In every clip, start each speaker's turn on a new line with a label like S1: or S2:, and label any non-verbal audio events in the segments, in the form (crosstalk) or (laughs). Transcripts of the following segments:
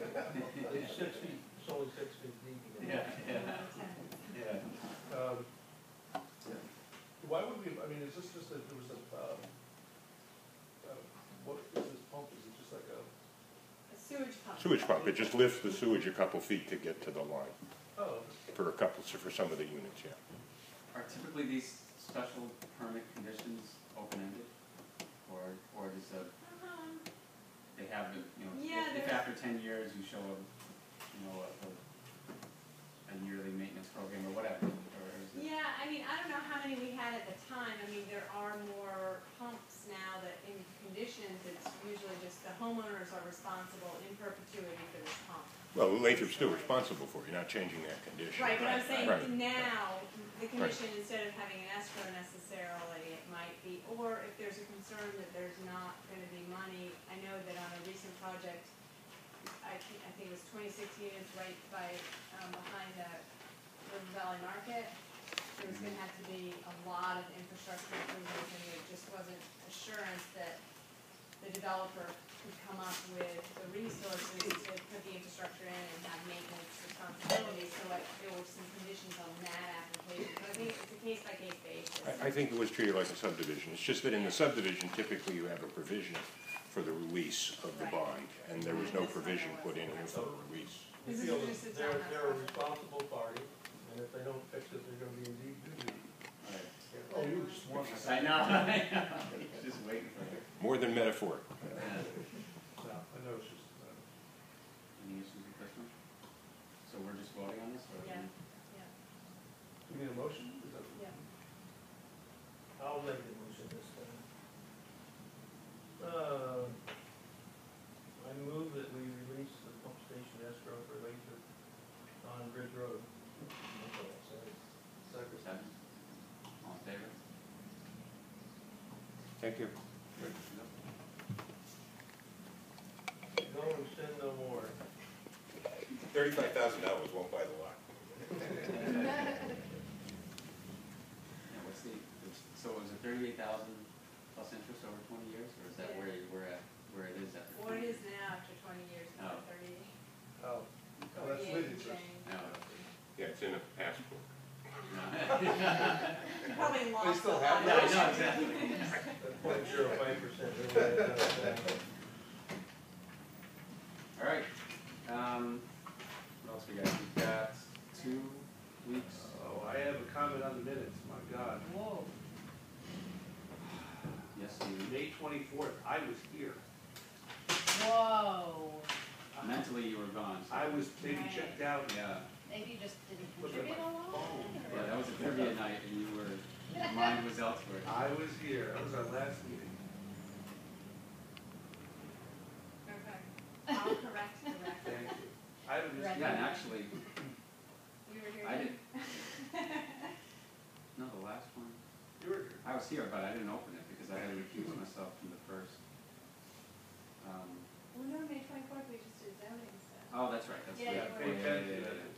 S1: It's six feet, it's only six feet deep. you know.
S2: Yeah, yeah, yeah.
S1: Um, Why would we, I mean, is this just that there was a, um, uh, what is this pump, is it just like a,
S3: A sewage pump.
S4: Sewage pump, it just lifts the sewage a couple feet to get to the line
S1: oh,
S4: for a couple, for some of the units, yeah.
S2: Are typically these special permit conditions open-ended? Or, or does uh
S3: Um,
S2: they have, the- you know,
S3: Yeah,
S2: if- if
S3: there's-
S2: after ten years you show a, you know, a, a- a yearly maintenance program or whatever, or is it?
S3: Yeah, I mean, I don't know how many we had at the time, I mean, there are more pumps now that in conditions, it's usually just the homeowners are responsible in perpetuity for this pump.
S4: Well, Lathrop's still responsible for it, you're not changing that condition.
S3: Right, but I'm
S4: Right.
S3: saying now, the commission, instead of having an escrow necessarily, it might be, or if there's a concern that there's not gonna be money, I know that on a recent project, I think, I think it was twenty-six units right by, um, behind the River Valley Market, there was gonna have to be a lot of infrastructure improvements, and there just wasn't assurance that the developer could come up with the resources to put the infrastructure in and have maintenance responsibilities, so like, there were some conditions on that application, so I think it's a case by case basis.
S4: I, I think it was treated like a subdivision, it's just that in the subdivision typically you have a provision for the release of the
S3: Right.
S4: bond, and there was no provision put in here for a release.
S1: we
S3: This is
S1: feel
S3: just a
S1: that they're,
S3: townhouse
S1: they're a
S3: project.
S1: responsible party, and if they don't fix it, they're gonna be in deep doo-doo.
S2: All
S1: Oh, you were just wondering.
S2: right. I know, I know, (laughs) just waiting for it.
S4: More than metaphoric.
S2: Yeah.
S1: No, I know, it's just, uh,
S2: Any issues with this one? So we're just voting on this or?
S3: Yeah.
S1: do we need a motion? Is that-
S3: Yeah.
S1: I'll make the motion this time. Uh, I move that we release the pump station escrow for later on Bridge Road.
S2: Or
S1: Second.
S2: seven? All in favor?
S4: Thank you.
S1: No one sin, no more.
S4: Thirty-five thousand dollars won't buy the lot.
S2: (laughs) Yeah, what's the, so is it thirty-eight thousand plus interest over twenty years, or is that where you, where, at- where it is at?
S3: (laughs) What it is now after twenty years,
S2: Oh.
S3: not thirty,
S1: Oh, Oh, that's
S3: thirty-eight and
S1: with interest. (laughs)
S3: change.
S2: No.
S4: Yeah, it's in a passport.
S2: No. (laughs)
S3: You probably lost a
S1: still
S3: lot.
S1: have
S3: of
S2: No,
S3: it.
S2: no, exactly.
S5: (laughs)
S1: That's point zero five percent.
S2: (laughs) All right, um, what else we got? We've got two weeks.
S1: Oh, I have a comment on the minutes, my God.
S2: Whoa. Yes, you,
S1: May twenty-fourth, I was here.
S5: Whoa,
S2: mentally you were gone. so-
S1: I was maybe checked out.
S2: Yeah,
S5: maybe you just didn't
S1: Look at
S5: contribute
S1: my
S5: a lot?
S2: yeah, that was a trivia night and you were, your mind was elsewhere.
S1: I was here, that was our last meeting.
S3: Okay, I'll correct the record,
S1: Thank you. I was,
S5: Right.
S2: Yeah, and actually,
S3: you were here.
S2: I
S3: then?
S2: did, no, the last one,
S1: you were here.
S2: I was here, but I didn't open it because I had to recuse myself from the first. Um,
S3: Well, no, May twenty-fourth, we just did zoning stuff.
S2: Oh, that's right, that's,
S3: Yeah,
S2: yeah, yeah,
S3: you were.
S2: yeah, yeah, yeah, yeah.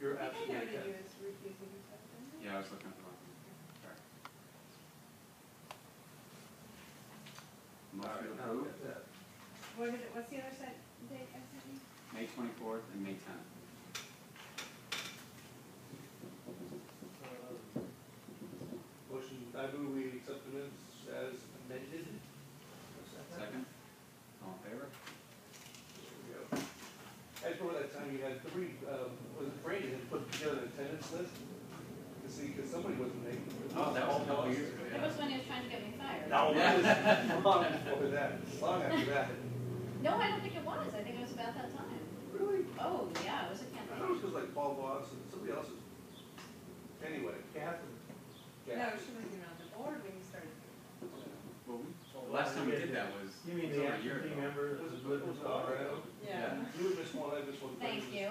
S1: You're
S3: I think I noted
S1: absolutely right.
S3: you as refusing yourself, didn't I?
S2: Yeah, I was looking at the wrong thing, sorry.
S1: All right,
S2: Motion
S1: now look
S2: approved,
S1: at that.
S3: What is it, what's the other set date I sent you?
S2: May twenty-fourth and May tenth.
S1: Uh, Motion, I move we accept the minutes as amended.
S2: Second, all in favor?
S1: There we go. I just remember that time you had three, um, was it Brady had put together an attendance list? To see, because somebody wasn't making. it.
S2: Oh, that was a couple
S1: All
S2: years ago,
S5: That
S2: yeah.
S5: was when he was trying to get me fired.
S1: No, that was long before that, long after that.
S5: No, I don't think it was, I think it was about that time.
S1: Really?
S5: Oh, yeah, it was a
S1: I thought it was
S5: campaign.
S1: just like Paul Voss and somebody else's. Anyway. Catherine.
S3: No, she was even on the board when you started.
S2: Well, we, the last time we did that was,
S6: You
S2: it was
S6: mean the
S2: over a year
S6: active
S2: ago.
S6: team member that
S1: Was
S6: was
S1: it,
S6: with
S1: was
S6: us
S1: it
S6: all
S1: all
S6: around?
S1: right?
S2: Yeah.
S1: You would miss one, I missed one.
S5: Thank you.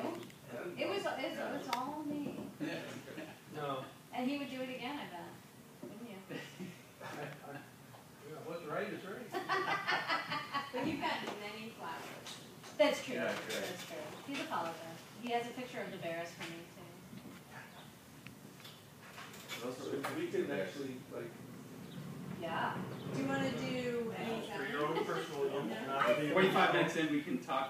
S5: It was, it was all me,
S6: No,
S5: and he would do it again, I bet, wouldn't you?
S1: Yeah, what's right is right.
S3: But you've gotten many flowers.
S5: That's true,
S2: Yeah,
S5: that's
S2: yeah.
S5: true, he's a follower, he has a picture of the bears for me too.
S2: Those
S1: So
S2: were
S1: if we can actually, like,
S5: Yeah.
S3: Do you wanna do any?
S6: for your own personal, use, not to be.
S2: Forty-five minutes in, we can talk